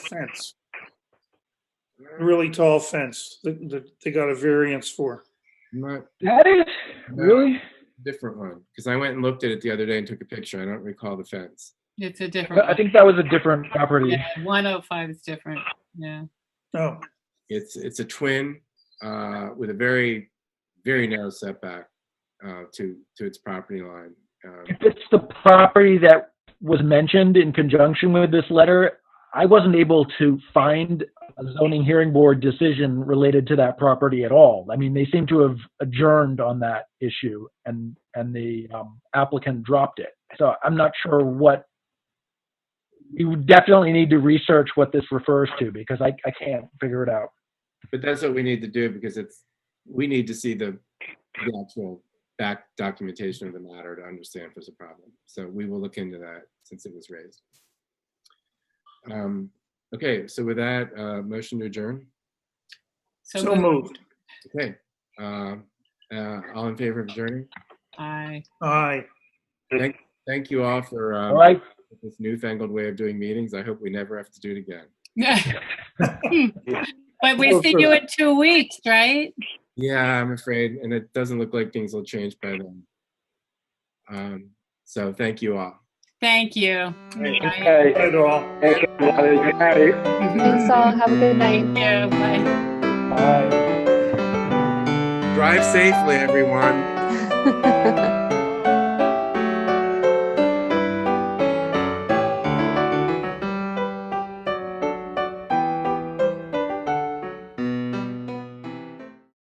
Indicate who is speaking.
Speaker 1: fence. Really tall fence that, that they got a variance for.
Speaker 2: Not
Speaker 3: That is
Speaker 2: No.
Speaker 3: really
Speaker 2: different one because I went and looked at it the other day and took a picture. I don't recall the fence.
Speaker 4: It's a different.
Speaker 3: I think that was a different property.
Speaker 4: Yeah, 105 is different. Yeah.
Speaker 1: No,
Speaker 2: It's it's a twin uh, with a very very narrow setback uh, to to its property line. Um,
Speaker 3: If it's the property that was mentioned in conjunction with this letter, I wasn't able to find a zoning hearing board decision related to that property at all. I mean, they seem to have adjourned on that issue and, and the um, applicant dropped it. So I'm not sure what, you would definitely need to research what this refers to because I, I can't figure it out.
Speaker 2: but that's what we need to do because it's we need to see the, the actual back documentation of the matter to understand if there's a problem. So we will look into that since it was raised. Um, okay, so with that, uh, motion to adjourn.
Speaker 1: so moved.
Speaker 2: Okay. Uh, uh, all in favor of adjourning?
Speaker 4: Aye.
Speaker 1: Aye.
Speaker 2: Thank you all for um,
Speaker 3: All right,
Speaker 2: this newfangled way of doing meetings. I hope we never have to do it again.
Speaker 4: But we see you in two weeks, right?
Speaker 2: Yeah, I'm afraid, and it doesn't look like things will change by then. Um, so thank you all.
Speaker 4: Thank you. Bye.
Speaker 5: Okay.
Speaker 1: At all.
Speaker 5: Thank you. Good night.
Speaker 4: Thank
Speaker 6: Thanks all. Have a good night.
Speaker 4: you. Bye.
Speaker 3: bye.
Speaker 2: Drive safely, everyone.